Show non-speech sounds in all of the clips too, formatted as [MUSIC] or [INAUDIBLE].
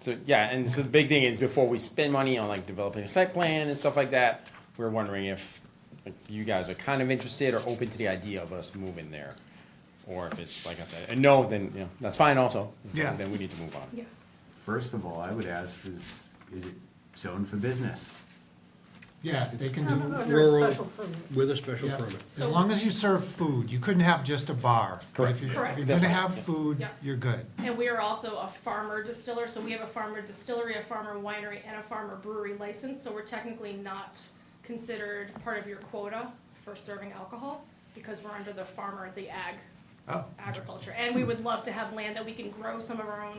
So, yeah, and so the big thing is before we spend money on like developing a site plan and stuff like that, we're wondering if like, you guys are kind of interested or open to the idea of us moving there. Or if it's, like I said, a no, then, you know, that's fine also. Yeah. Then we need to move on. Yeah. First of all, I would ask is, is it zoned for business? Yeah, they can do Under a Rural special permit. with a special Yeah, permit. As long as you serve food, you couldn't have just a bar. But Correct. If you're- Correct. if you're That's gonna right. have food, Yeah. you're good. And we are also a farmer distiller, so we have a farmer distillery, a farmer winery, and a farmer brewery license, so we're technically not considered part of your quota for serving alcohol, because we're under the farmer, the ag, Oh, agriculture. And we would love to have land that we can grow some of our own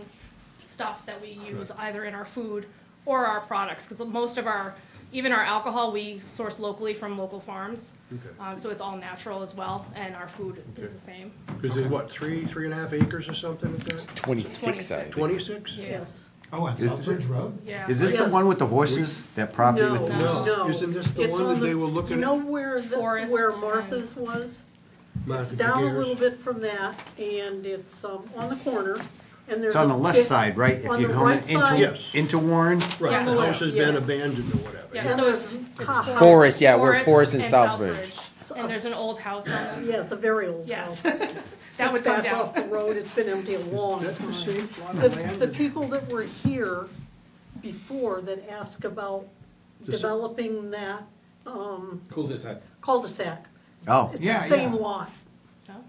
stuff that we use either in our food or our products, because most of our, even our alcohol, we source locally from local farms. Okay. Um, so it's all natural as well, and our food is Okay. the same. Is it what, three, three and a half acres or something like that? Twenty-six, I think. Twenty-six? Yes. oh, on Southbridge Road? Yeah. Is this the Yes. one with the horses, that property with the No. horses? No. Isn't this the It's one on that they were looking You know at? where, the- Forest where and- Martha's was? Martha Down a Gutierrez? little bit from that, and it's um, on the corner, and there's. It's on a the left big- side, right? If on you're the going right into- side. Yes. Into Warren, Right, the Yes. house has been Yes. abandoned or whatever. Yeah, And so it's, there's it's hot forest. Forest, yeah, we're Forest and Southbridge. Southbridge. And there's an old house on it. Yeah, it's a very old house. Yes. [LAUGHS] That would come Sits back off down. the road, it's been empty a long That the time. same plot The, of land? the people that were here before that asked about The s- developing that um, Cul-de-sac. cul-de-sac, oh, it's the Yeah, same yeah. lot.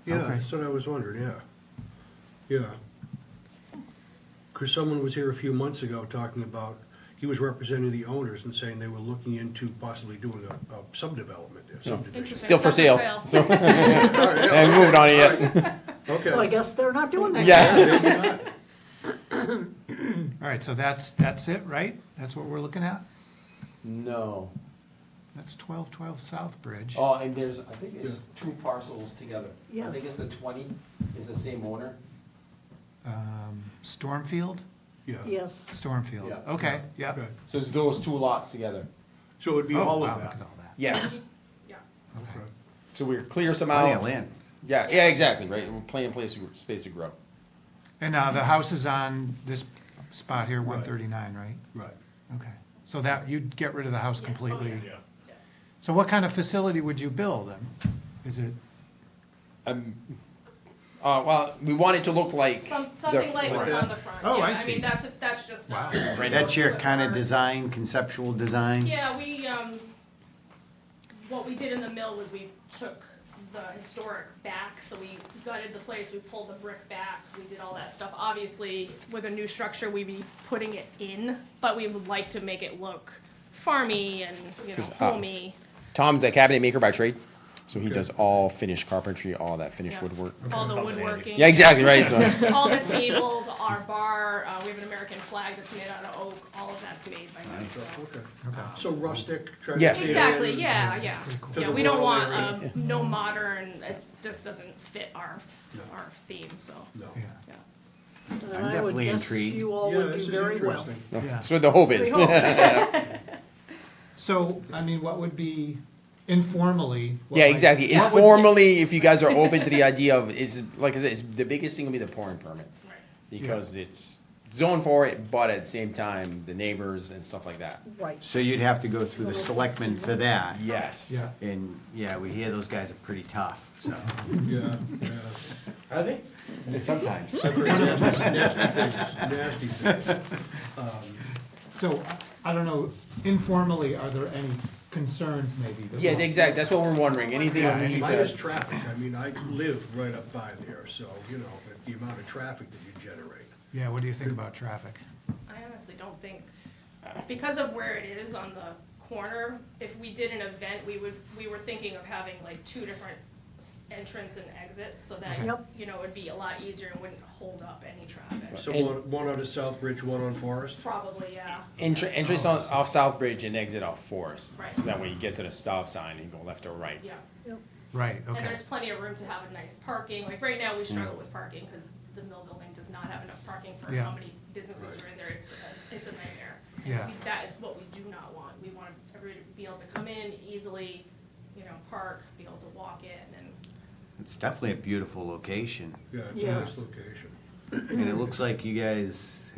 Yeah, Okay. that's what I was wondering, yeah. Yeah. Because someone was here a few months ago talking about, he was representing the owners and saying they were looking into possibly doing a, a subdevelopment, a subdivision. Interesting. Still for It's sale. not for So, All right, [LAUGHS] yeah, and moved on yet. So I Okay. guess they're not doing that. Yeah. [COUGHS] All right, so that's, that's it, right? That's what we're looking at? [LAUGHS] No. That's twelve twelve Southbridge. Oh, and there's, I think there's two parcels together. I Yes. think it's the twenty, is the same owner. Um, Stormfield? Yeah. [LAUGHS] Yes. Yeah. Stormfield, okay, yeah. Okay. So it's those two lots together. So it'd be Oh, all wow, of look at that. all that. Yes. [LAUGHS] Yeah. Okay. So we're clear plenty of somehow. land. Yeah, yeah, exactly, right? We're playing place, space to grow. And uh, the house is on this spot here, one thirty-nine, right? Right. Okay, so that, you'd get rid of the house Yeah. Oh, completely? So what kind of facility would you build then? Is it, Uh, well, we want it to look like. Some, the something like front. what's on the front. Oh, Yeah, I see. mean, that's, that's just. uh, Right. That's your kind of Our- design, conceptual design? Yeah, we, um, what we did in the mill was we took the historic back, so we gutted the place, we pulled the brick back, we did all that stuff. Obviously, with a new structure, we'd be putting it in, but we would like to make it look farmy and, you know, 'Cause, uh, homey. Tom's a cabinet maker by trade, so he does all finished carpentry, all that finished yeah. woodwork. All the woodworking. Yeah, exactly, right, [LAUGHS] so, All [LAUGHS] the tables, our bar, uh, we have an American flag that's made out of oak, all of that's made by him, so. Okay. So rustic, try to Yes. fit in. Exactly, yeah, yeah. cool. Yeah, To the we don't rural want, area. um, no modern, it just doesn't fit our, our theme, so, No. yeah, yeah. And I I'm would definitely guess intrigued. You all Yeah, would this do is very well. interesting. yeah. so the hope We is. hope. [LAUGHS] So, I mean, what would be informally? what Yeah, might- exactly. what would- Informally, if you guys are open to the idea of, it's, like I said, it's, the biggest thing will be the pouring permit. Right. Because it's zoned for it, but at the same time, the neighbors and stuff like that. Right. So you'd have to go through the selectmen for that? Yes. Yeah, And, yeah, we hear those guys are pretty tough, so. Yeah, yeah. Are they? Sometimes. Nasty things. so, I don't know, informally, are there any concerns maybe? that Yeah, we'll- exactly. That's what we're wondering. Anything Yeah, we need Mine is to. traffic, I mean, I live right up by there, so, you know, but the amount of traffic that you generate. Yeah, what do you think about traffic? I honestly don't think, because of where it is on the corner, if we did an event, we would, we were thinking of having like two different s- entrance and exits, so that, Yep. you know, it'd be a lot easier and wouldn't hold up any traffic. So one, one out of Southbridge, one on Forest? Probably, yeah. Entr- entrance on, off South Bridge and exit off Forest. Right. So that way you get to the stop sign and you go left or right. Yeah. Right, And okay, there's plenty of room to have a nice parking, like right now, we struggle with parking, cause the mill building does not have enough parking for Yeah. how many businesses are in there, it's, a- it's a nightmare. And Yeah. we- That is what we do not want, we want everybody to be able to come in easily, you know, park, be able to walk in, and It's definitely a beautiful location. Yeah, it's a Yeah. nice location. And it looks like you guys